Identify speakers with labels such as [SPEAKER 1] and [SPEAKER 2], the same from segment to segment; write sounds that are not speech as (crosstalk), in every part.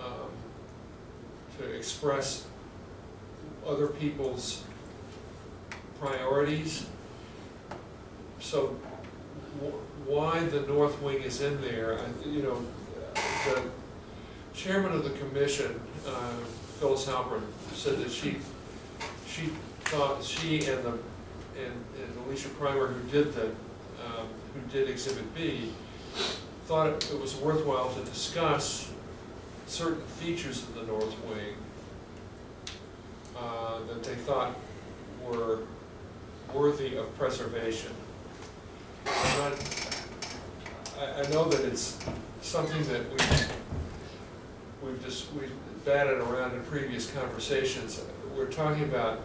[SPEAKER 1] um, to express other people's priorities. So wh- why the north wing is in there, I- you know, the chairman of the commission, uh, Phyllis Halpern, said that she, she thought, she and the, and and Alicia Primer, who did the, um, who did exhibit B, thought it it was worthwhile to discuss certain features of the north wing uh, that they thought were worthy of preservation. I'm not- I, I know that it's something that we, we've just, we've batted around in previous conversations. We're talking about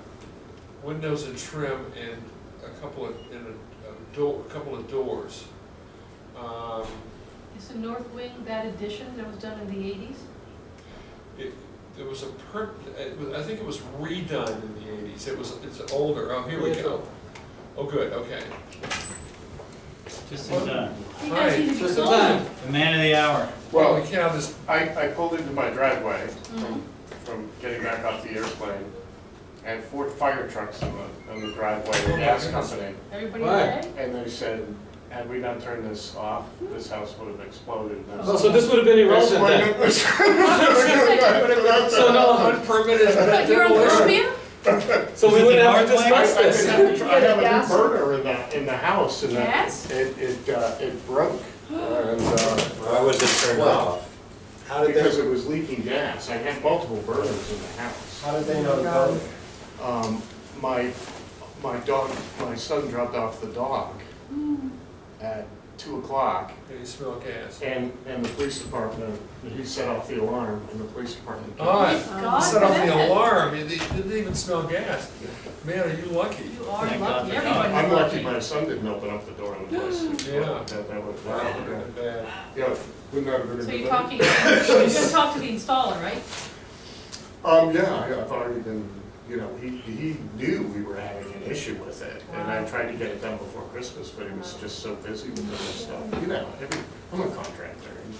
[SPEAKER 1] windows and trim and a couple of, and a, a door, a couple of doors. Um,
[SPEAKER 2] Is the north wing that addition that was done in the eighties?
[SPEAKER 1] It, there was a per, it was- I think it was redone in the eighties, it was, it's older, oh, here we
[SPEAKER 3] Yes,
[SPEAKER 1] go. Oh, good, okay.
[SPEAKER 4] Just in time.
[SPEAKER 2] You guys
[SPEAKER 1] Right,
[SPEAKER 2] need to be
[SPEAKER 3] Just in
[SPEAKER 2] sold.
[SPEAKER 3] time.
[SPEAKER 4] The man of the hour.
[SPEAKER 1] Well, we
[SPEAKER 5] Well,
[SPEAKER 1] can't have this,
[SPEAKER 5] I, I pulled into my driveway
[SPEAKER 2] Mhm.
[SPEAKER 5] from, from getting back off the airplane, and four fire trucks in the, in the driveway,
[SPEAKER 1] Oh, my
[SPEAKER 5] the gas
[SPEAKER 1] goodness.
[SPEAKER 5] company.
[SPEAKER 2] Everybody
[SPEAKER 3] Right.
[SPEAKER 2] okay?
[SPEAKER 5] And they said, had we not turned this off, this house would have exploded. And I was
[SPEAKER 3] Oh,
[SPEAKER 5] like,
[SPEAKER 3] so this would have been
[SPEAKER 5] "That's
[SPEAKER 3] irrelevant
[SPEAKER 5] (laughs) why
[SPEAKER 3] then?
[SPEAKER 5] it was-"
[SPEAKER 3] So no,
[SPEAKER 1] unpermitted
[SPEAKER 2] But you're on
[SPEAKER 1] demolition.
[SPEAKER 2] Columbia?
[SPEAKER 3] so we
[SPEAKER 4] Is it
[SPEAKER 3] wouldn't
[SPEAKER 4] the
[SPEAKER 3] have to
[SPEAKER 4] hard
[SPEAKER 3] discuss
[SPEAKER 5] I- I
[SPEAKER 3] this.
[SPEAKER 5] have a tr- I have a
[SPEAKER 2] Yes.
[SPEAKER 5] new burner in the, in the house, and
[SPEAKER 2] Yes?
[SPEAKER 5] it, it, it, uh,
[SPEAKER 2] (gasps)
[SPEAKER 5] it broke. And, uh,
[SPEAKER 6] Why was it turned
[SPEAKER 5] Wow.
[SPEAKER 6] off?
[SPEAKER 3] How did
[SPEAKER 5] because it was leaking gas. I had multiple burners in the house.
[SPEAKER 6] How did they know to vote?
[SPEAKER 5] Um, my, my dog, my son dropped off the dog
[SPEAKER 2] Hmm.
[SPEAKER 5] at two o'clock,
[SPEAKER 1] Yeah, you smell gas.
[SPEAKER 5] and, and the police department, he set off the alarm, and the police department. came.
[SPEAKER 1] Oh,
[SPEAKER 2] Thank God
[SPEAKER 1] Set off
[SPEAKER 2] for
[SPEAKER 1] the
[SPEAKER 2] that.
[SPEAKER 1] alarm, you didn't didn't even smell gas. Man, are you lucky?
[SPEAKER 2] You are
[SPEAKER 4] Thank God
[SPEAKER 2] lucky,
[SPEAKER 4] for God.
[SPEAKER 2] everybody's
[SPEAKER 5] I'm lucky
[SPEAKER 2] lucky.
[SPEAKER 5] my son didn't open up the door in
[SPEAKER 2] (gasps)
[SPEAKER 5] the place.
[SPEAKER 1] Yeah.
[SPEAKER 5] That, that would,
[SPEAKER 1] Wow, that would've been bad.
[SPEAKER 5] yeah, wouldn't that have been a good
[SPEAKER 2] So you're
[SPEAKER 5] idea?
[SPEAKER 2] talking, you're gonna talk to the installer, right?
[SPEAKER 5] Um, yeah, yeah, I've already been, you know, he, he knew we were having an issue with it, and I
[SPEAKER 2] Wow.
[SPEAKER 5] tried to get it done before Christmas, but he was just so busy with other stuff, you know, every- I'm a contractor, and,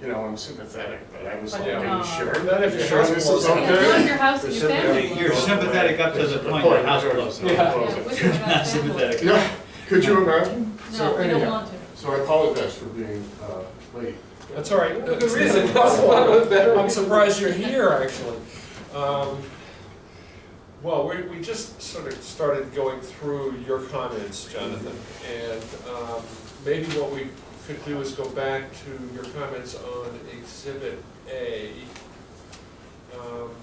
[SPEAKER 5] you know, I'm sympathetic, but uh, I was like,
[SPEAKER 1] Yeah.
[SPEAKER 5] are you sure?
[SPEAKER 1] Not if your
[SPEAKER 5] Sure
[SPEAKER 1] house
[SPEAKER 5] this
[SPEAKER 1] blows
[SPEAKER 5] is
[SPEAKER 1] up.
[SPEAKER 2] Yeah, it's not
[SPEAKER 5] okay?
[SPEAKER 2] your house and your
[SPEAKER 6] Reciprocate.
[SPEAKER 2] family.
[SPEAKER 4] You're
[SPEAKER 2] Yeah,
[SPEAKER 4] sympathetic up to the point where house blows up.
[SPEAKER 3] Yeah.
[SPEAKER 2] with or without
[SPEAKER 4] Not
[SPEAKER 2] family.
[SPEAKER 4] sympathetic.
[SPEAKER 5] Yeah, could you imagine?
[SPEAKER 2] No,
[SPEAKER 5] So
[SPEAKER 2] we don't
[SPEAKER 5] anyhow,
[SPEAKER 2] want to.
[SPEAKER 5] So I apologize for being, uh, late.
[SPEAKER 1] That's all right.
[SPEAKER 3] Good reason, that's why it was better.
[SPEAKER 1] I'm surprised you're here, actually. Um, Well, we, we just sort of started going through your comments, Jonathan, and um, maybe what we could do is go back to your comments on Exhibit A. Um,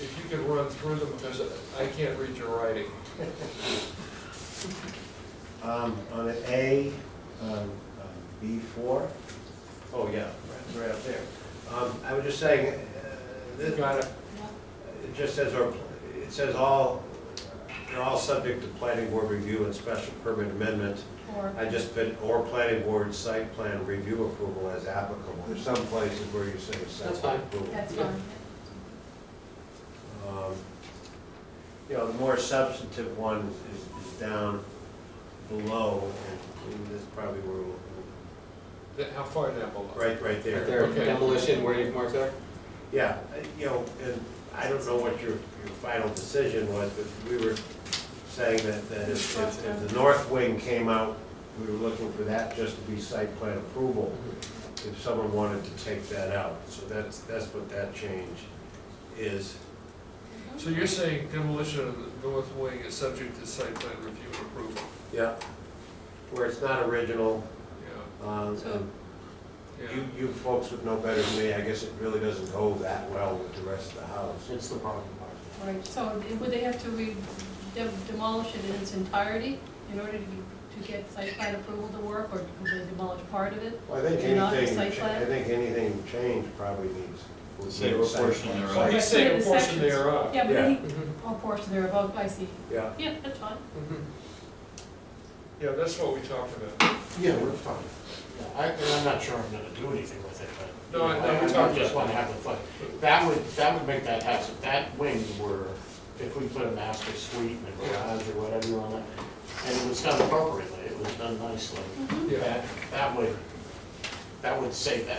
[SPEAKER 1] If you could run through them, because I can't read your writing.
[SPEAKER 6] Um, on an A, on B four? Oh, yeah, right- right up there. Um, I was just saying, uh,
[SPEAKER 1] You
[SPEAKER 6] this,
[SPEAKER 1] got it?
[SPEAKER 6] it just says, our- it says all, they're all subject to planning board review and special permit amendment.
[SPEAKER 2] Or,
[SPEAKER 6] I just put, or planning board site plan review approval as applicable. There's some places where you say site
[SPEAKER 3] That's
[SPEAKER 6] plan
[SPEAKER 3] fine.
[SPEAKER 6] approval.
[SPEAKER 2] that's fine.
[SPEAKER 6] Um, You know, the more substantive one is- is, is down below, and and this is probably where, we'll-
[SPEAKER 1] That- How far down below?
[SPEAKER 6] right, right
[SPEAKER 3] Right
[SPEAKER 6] there.
[SPEAKER 3] there,
[SPEAKER 1] Okay.
[SPEAKER 3] demolition where you've marked there.
[SPEAKER 6] Yeah, uh, you know, and I don't know what your, your final decision was, but we were saying that, that if, if if the north wing came out, we were looking for that just to be site plan approval, if someone wanted to take that out. So that's, that's what that change is.
[SPEAKER 2] Mm-hmm.
[SPEAKER 1] So you're saying demolition of the north wing is subject to site plan review and approval?
[SPEAKER 6] Yeah. Where it's not original,
[SPEAKER 1] Yeah,
[SPEAKER 6] um,
[SPEAKER 2] So-
[SPEAKER 6] and
[SPEAKER 1] yeah.
[SPEAKER 6] You, you folks would know better than me, I guess it really doesn't go that well with the rest of the house.
[SPEAKER 5] It's the problem.
[SPEAKER 2] Right, so would they have to re- de- demolish it in its entirety in order to, to get site plan approval to work, or could they demolish part of it?
[SPEAKER 6] Well, I think
[SPEAKER 2] And not the
[SPEAKER 6] anything,
[SPEAKER 2] site
[SPEAKER 6] cha-
[SPEAKER 2] plan?
[SPEAKER 6] I think anything changed probably needs. would
[SPEAKER 4] Say
[SPEAKER 6] need
[SPEAKER 4] a
[SPEAKER 6] site
[SPEAKER 4] portion
[SPEAKER 6] plan.
[SPEAKER 4] thereof.
[SPEAKER 1] Well, he's saying a portion thereof.
[SPEAKER 2] Yeah, but
[SPEAKER 6] Yeah.
[SPEAKER 2] any,
[SPEAKER 1] Mm-hmm,
[SPEAKER 2] or portion thereof, I see.
[SPEAKER 6] Yeah,
[SPEAKER 2] Yeah, that's fine.
[SPEAKER 1] Yeah, that's what we talked about.
[SPEAKER 5] Yeah, we're fine. Yeah, I, and I'm not sure I'm gonna do anything with it, but.
[SPEAKER 1] No, I- no, we
[SPEAKER 5] I- I
[SPEAKER 1] talked
[SPEAKER 5] Just
[SPEAKER 1] about
[SPEAKER 5] wanna have the fun. That would, that would make that house, if that wing were, if we put a master suite and a garage or whatever on it, and it was done appropriately, it was done nicely,
[SPEAKER 1] Yeah.
[SPEAKER 5] that, that would, that would save that